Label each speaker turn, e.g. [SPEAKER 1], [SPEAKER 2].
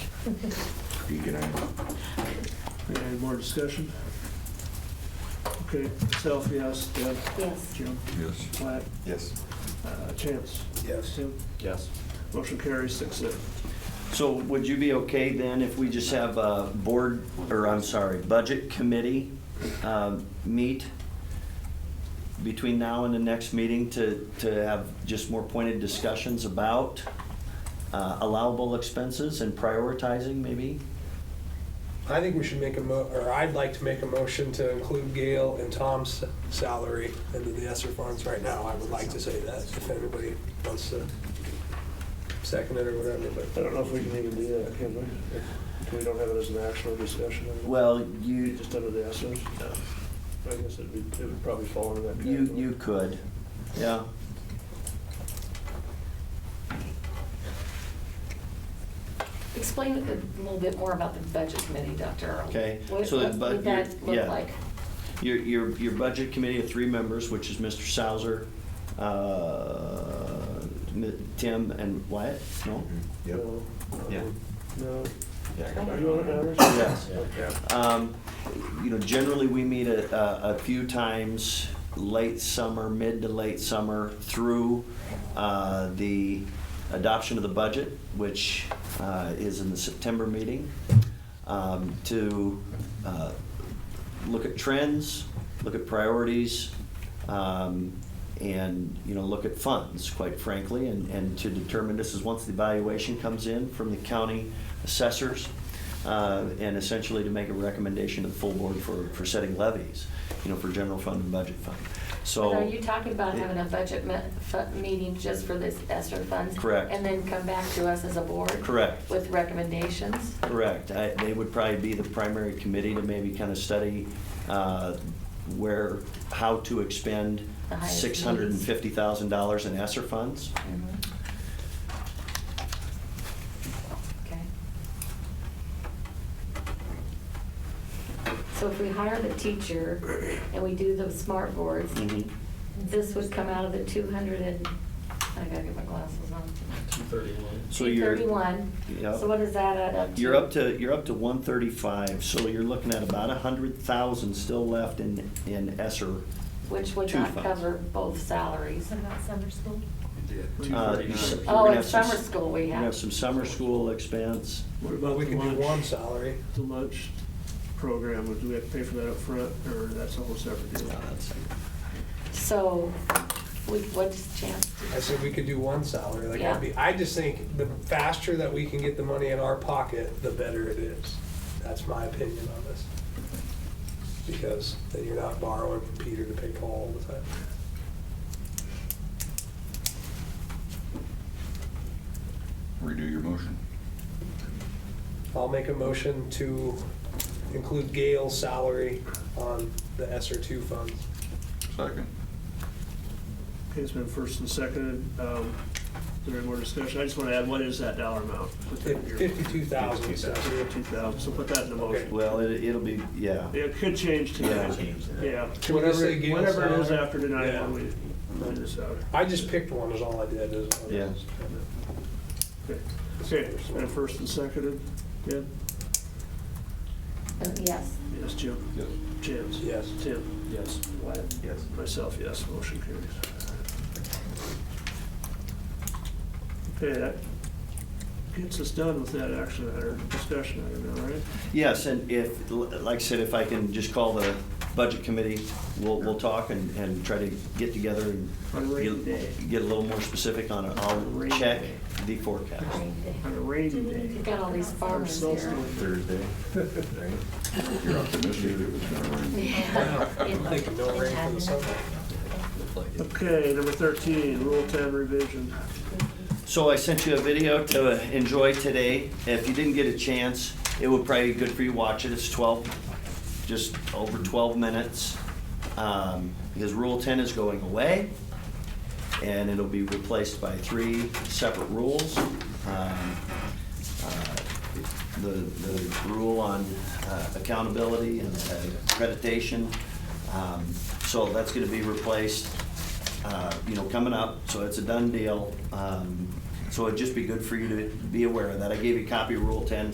[SPEAKER 1] You can add.
[SPEAKER 2] Any more discussion? Okay, self, yes, Deb,
[SPEAKER 3] Yes.
[SPEAKER 2] Jim,
[SPEAKER 1] Yes.
[SPEAKER 2] Platt,
[SPEAKER 4] Yes.
[SPEAKER 2] uh, Chance.
[SPEAKER 4] Yes.
[SPEAKER 2] Tim,
[SPEAKER 5] Yes.
[SPEAKER 2] motion carries six zero.
[SPEAKER 5] So would you be okay then if we just have a board, or I'm sorry, budget committee um, meet between now and the next meeting to, to have just more pointed discussions about uh, allowable expenses and prioritizing maybe?
[SPEAKER 6] I think we should make a mo, or I'd like to make a motion to include Gail and Tom's salary into the ESER funds right now. I would like to say that, if anybody wants to second it or whatever,
[SPEAKER 2] I
[SPEAKER 6] but
[SPEAKER 2] don't know if we can even do that, can we? If we don't have it as an actual discussion, I mean,
[SPEAKER 5] Well, you,
[SPEAKER 2] just under the assets? I guess it'd be, it would probably fall under that
[SPEAKER 5] you,
[SPEAKER 2] category.
[SPEAKER 5] you could, yeah.
[SPEAKER 3] Explain a little bit more about the budget committee, Dr. Earl.
[SPEAKER 5] Okay,
[SPEAKER 3] What
[SPEAKER 5] so the
[SPEAKER 3] what
[SPEAKER 5] budget-
[SPEAKER 3] would that
[SPEAKER 5] yeah.
[SPEAKER 3] look like?
[SPEAKER 5] Your, your, your budget committee of three members, which is Mr. Sauer, uh, M- Tim and Wyatt, no?
[SPEAKER 1] Mm-hmm.
[SPEAKER 4] Yep.
[SPEAKER 2] No, um,
[SPEAKER 5] Yeah.
[SPEAKER 2] No.
[SPEAKER 3] back
[SPEAKER 2] You want it, Anders?
[SPEAKER 5] Yes.
[SPEAKER 2] Okay.
[SPEAKER 5] Um, You know, generally, we meet a, a- a few times, late summer, mid to late summer, through uh, the adoption of the budget, which uh, is in the September meeting, um, to uh, look at trends, look at priorities, um, and, you know, look at funds, quite frankly, and, and to determine, this is once the evaluation comes in from the county assessors, uh, and essentially to make a recommendation to the full board for, for setting levies, you know, for general fund and budget fund. So.
[SPEAKER 3] But Are you talking about having a budget me- fu- meeting just for this ESER funds?
[SPEAKER 5] Correct.
[SPEAKER 3] And then come back to us as a board?
[SPEAKER 5] Correct.
[SPEAKER 3] With recommendations?
[SPEAKER 5] Correct. I- They would probably be the primary committee to maybe kind of study uh, where, how to expend
[SPEAKER 3] The highest needs.
[SPEAKER 5] $650,000 in ESSER funds.
[SPEAKER 3] Mhm. Okay. So if we hire the teacher and we do the smart boards,
[SPEAKER 5] Mhm.
[SPEAKER 3] this would come out of the 200 and, I gotta get my glasses on.
[SPEAKER 5] So you're-
[SPEAKER 3] 231.
[SPEAKER 5] Yep.
[SPEAKER 3] So what does that add up to?
[SPEAKER 5] You're up to, you're up to 135, so you're looking at about 100,000 still left in, in ESSER.
[SPEAKER 3] Which would
[SPEAKER 5] two
[SPEAKER 3] not
[SPEAKER 5] funds.
[SPEAKER 3] cover both salaries.
[SPEAKER 7] What about summer school?
[SPEAKER 5] Uh, you s- you're
[SPEAKER 3] Oh,
[SPEAKER 5] gonna
[SPEAKER 3] and
[SPEAKER 5] have some-
[SPEAKER 3] summer school we
[SPEAKER 5] you're gonna
[SPEAKER 3] have.
[SPEAKER 5] have some summer school expense.
[SPEAKER 2] What about
[SPEAKER 6] we
[SPEAKER 2] the
[SPEAKER 6] can do one
[SPEAKER 2] lunch,
[SPEAKER 6] salary.
[SPEAKER 2] the lunch program, do we have to pay for that up front, or that's a whole separate
[SPEAKER 5] Uh,
[SPEAKER 2] deal?
[SPEAKER 5] that's-
[SPEAKER 3] So, we- what's chance?
[SPEAKER 6] I said we could do one salary, like, that'd be, I just think the faster that we can get the money in our pocket, the better it is. That's my opinion on this. Because then you're not borrowing from Peter to pay Paul all the time.
[SPEAKER 1] Redo your motion.
[SPEAKER 6] I'll make a motion to include Gail's salary on the SR two funds.
[SPEAKER 1] Second.
[SPEAKER 2] Okay, it's been first and seconded, um, is there any more discussion? I just want to add, what is that dollar amount?
[SPEAKER 6] Fifty-two thousand.
[SPEAKER 2] Fifty-two thousand, so put that in the motion.
[SPEAKER 5] Well, it- it'll be, yeah.
[SPEAKER 2] It could change tonight, yeah.
[SPEAKER 6] Can we just
[SPEAKER 2] Whatever-
[SPEAKER 6] say Gail's
[SPEAKER 2] Whatever it is
[SPEAKER 6] salary?
[SPEAKER 2] after tonight,
[SPEAKER 6] Yeah.
[SPEAKER 2] when we, find this out.
[SPEAKER 6] I just picked one is all I did. is-
[SPEAKER 5] Yeah.
[SPEAKER 2] Okay, Okay, it's been first and seconded, Deb?
[SPEAKER 3] Uh, Yes.
[SPEAKER 2] Yes, Jim?
[SPEAKER 1] Yes.
[SPEAKER 2] Chance?
[SPEAKER 6] Yes.
[SPEAKER 2] Tim? Yes. Wyatt?
[SPEAKER 4] Yes.
[SPEAKER 2] Myself, yes, motion carries. Okay, that gets us done with that action item, discussion item, all right?
[SPEAKER 5] Yes, and if, like I said, if I can just call the budget committee, we'll, we'll talk and, and try to get together and
[SPEAKER 2] On a rainy day.
[SPEAKER 5] get, get a little more specific on it. I'll
[SPEAKER 2] Rainy
[SPEAKER 5] check
[SPEAKER 2] day.
[SPEAKER 5] the forecast.
[SPEAKER 2] On a rainy day.
[SPEAKER 3] You've got all these
[SPEAKER 2] Our
[SPEAKER 3] farmers
[SPEAKER 2] cell
[SPEAKER 3] here.
[SPEAKER 2] phone-
[SPEAKER 4] Thursday.
[SPEAKER 1] You're optimistic it was gonna rain.
[SPEAKER 6] I'm thinking no rain for the summer.
[SPEAKER 2] Okay, number thirteen, Rule Ten revision.
[SPEAKER 5] So I sent you a video to enjoy today. If you didn't get a chance, it would probably be good for you to watch it. It's 12, just over 12 minutes. Um, Because Rule 10 is going away, and it'll be replaced by three separate rules. Um, uh, The, the rule on uh, accountability and accreditation. Um, So that's gonna be replaced uh, you know, coming up, so it's a done deal. Um, So it'd just be good for you to be aware of that. I gave you a copy of Rule 10,